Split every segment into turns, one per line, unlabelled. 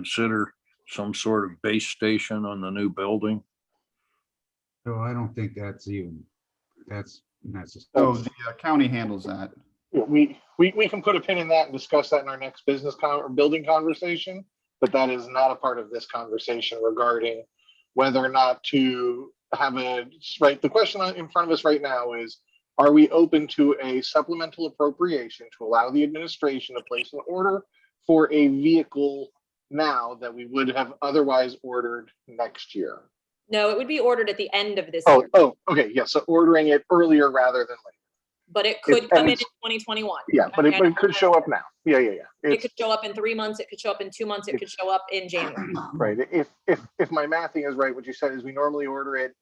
consider some sort of base station on the new building?
So I don't think that's even, that's necessary.
So the uh, county handles that.
Yeah, we, we, we can put a pin in that and discuss that in our next business con, or building conversation, but that is not a part of this conversation regarding whether or not to have a, right, the question on- in front of us right now is, are we open to a supplemental appropriation to allow the administration to place an order for a vehicle now that we would have otherwise ordered next year?
No, it would be ordered at the end of this
Oh,
year,
oh, okay, yeah, so ordering it earlier rather than later.
but it could
and
come in in
it's-
twenty twenty-one.
Yeah, but it, but it could show up now. Yeah, yeah, yeah.
It
It's-
could show up in three months, it could show up in two months, it could show up in January.
Right, if, if, if my mathing is right, what you said is we normally order it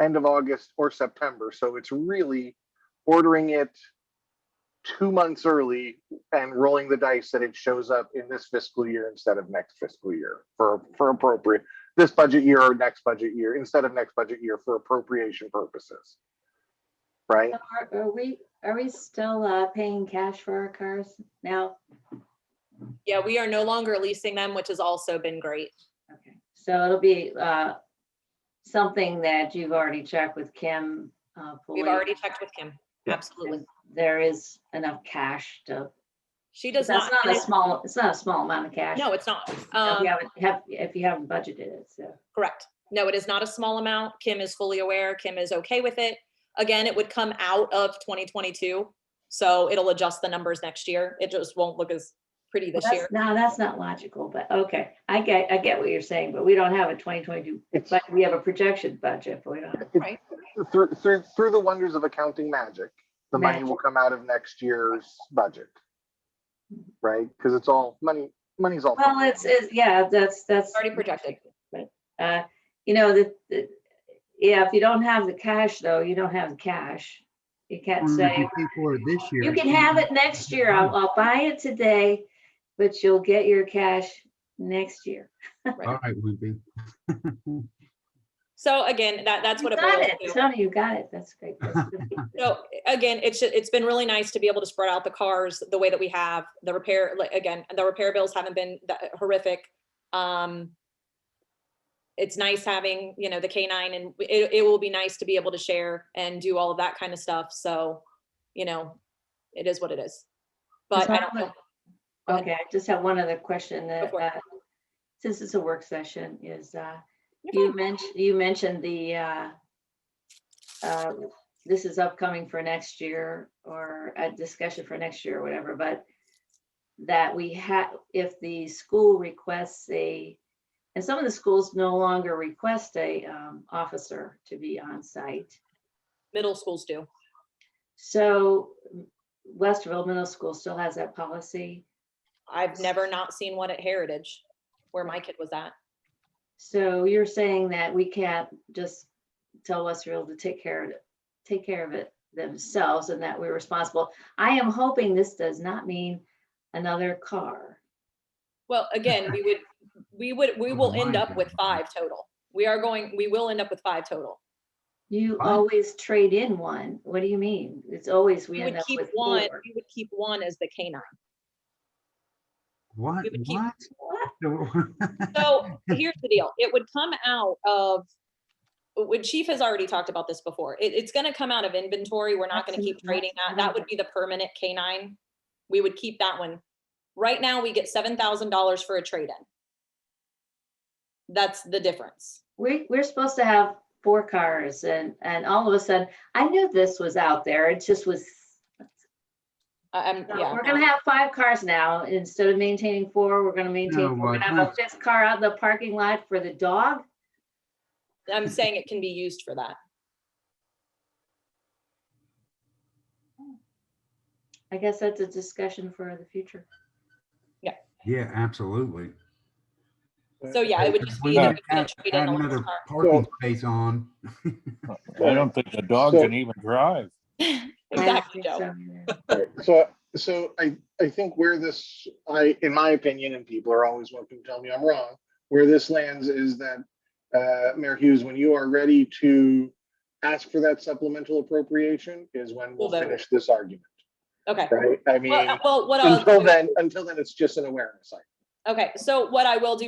end of August or September, so it's really ordering it two months early and rolling the dice that it shows up in this fiscal year instead of next fiscal year for, for appropriate, this budget year or next budget year, instead of next budget year for appropriation purposes. Right?
Are- Are we, are we still uh, paying cash for our cars now?
Yeah, we are no longer leasing them, which has also been great.
Okay, So it'll be uh, something that you've already checked with Kim. uh,
We've
Pulley.
already checked with Kim. Absolutely.
There is enough cash to,
She does
that's
not.
not a small, it's not a small amount of cash.
No, it's not.
If
Um,
you haven't, have- if you haven't budgeted it, so.
Correct. No, it is not a small amount. Kim is fully aware. Kim is okay with it. Again, it would come out of 2022. So it'll adjust the numbers next year. It just won't look as pretty this year.
That's- No, that's not logical, but okay, I get, I get what you're saying, but we don't have a 2022,
It's-
but we have a projection budget, but we don't. have-
Right.
Through, through, through the wonders of accounting magic, the money will come out of next year's budget. Right? Because it's all, money, money's all.
Well, it's, it's, yeah, that's, that's.
Already projected.
Uh, you know, the, the, yeah, if you don't have the cash though, you don't have the cash. You can't say,
For this year.
you can have it next year. I'll, I'll buy it today, but you'll get your cash next year.
All right, Wimpy.
So again, that, that's what
You
it
got
boils
it.
to.
Tony, you got it. That's great. That's good.
So again, it's, ju- it's been really nice to be able to spread out the cars the way that we have. The repair, like, again, the repair bills haven't been that horrific. Um, It's nice having, you know, the K nine and it, it will be nice to be able to share and do all of that kind of stuff. So, you know, it is what it is. But I don't know. Go ahead.
Okay, I just have one other question that,
for it.
uh, since it's a work session, is, uh,
You're
you mentioned, you mentioned the, uh, uh, this is upcoming for next year or a discussion for next year or whatever, but that we have, if the school requests a, and some of the schools no longer request a, um, officer to be on site.
Middle schools do.
So Westerville Middle School still has that policy.
I've never not seen one at Heritage where my kid was at.
So you're saying that we can't just tell Westfield to take care of it, take care of it themselves and that we're responsible. I am hoping this does not mean another car.
Well, again, we would, we would, we will end
Mine
up with
doesn't.
five total. We are going, we will end up with five total.
You
Huh?
always trade in one. What do you mean? It's always we
We
end
would
up
keep
with
one,
four.
we would keep one as the canine.
What,
We would keep-
what?
What?
So here's the deal, it would come out of, when Chief has already talked about this before, it, it's gonna come out of inventory, we're not gonna keep
Absolutely,
trading that, that would be the permanent canine. We would keep that one. Right now, we get seven thousand dollars for a trade-in. That's the difference.
We, we're supposed to have four cars and, and all of a sudden, I knew this was out there. It just was
I- I'm-
No,
yeah.
We're gonna have five cars now. Instead of maintaining four, we're gonna
No,
maintain, four. we're
Oh, my
gonna have a
goodness.
fifth car out in the parking lot for the dog.
I'm saying it can be used for that.
I guess that's a discussion for the future.
Yeah, absolutely.
So yeah, it would just be that
Add
we couldn't trade in
add
a lot
another
of car.
parking space on.
I don't think the dog
So-
can even drive.
I don't
Exactly,
think
Joe.
so either.
Right, So, so I, I think where this, I, in my opinion, and people are always welcome to tell me I'm wrong, where this lands is that, uh, Mayor Hughes, when you are ready to ask for that supplemental appropriation is when we'll
We'll vote.
finish this argument,
Okay.
right? I mean,
Well, uh, well, what I'll,
until
do-
then, until then, it's just an awareness. item.
Okay, so what I will do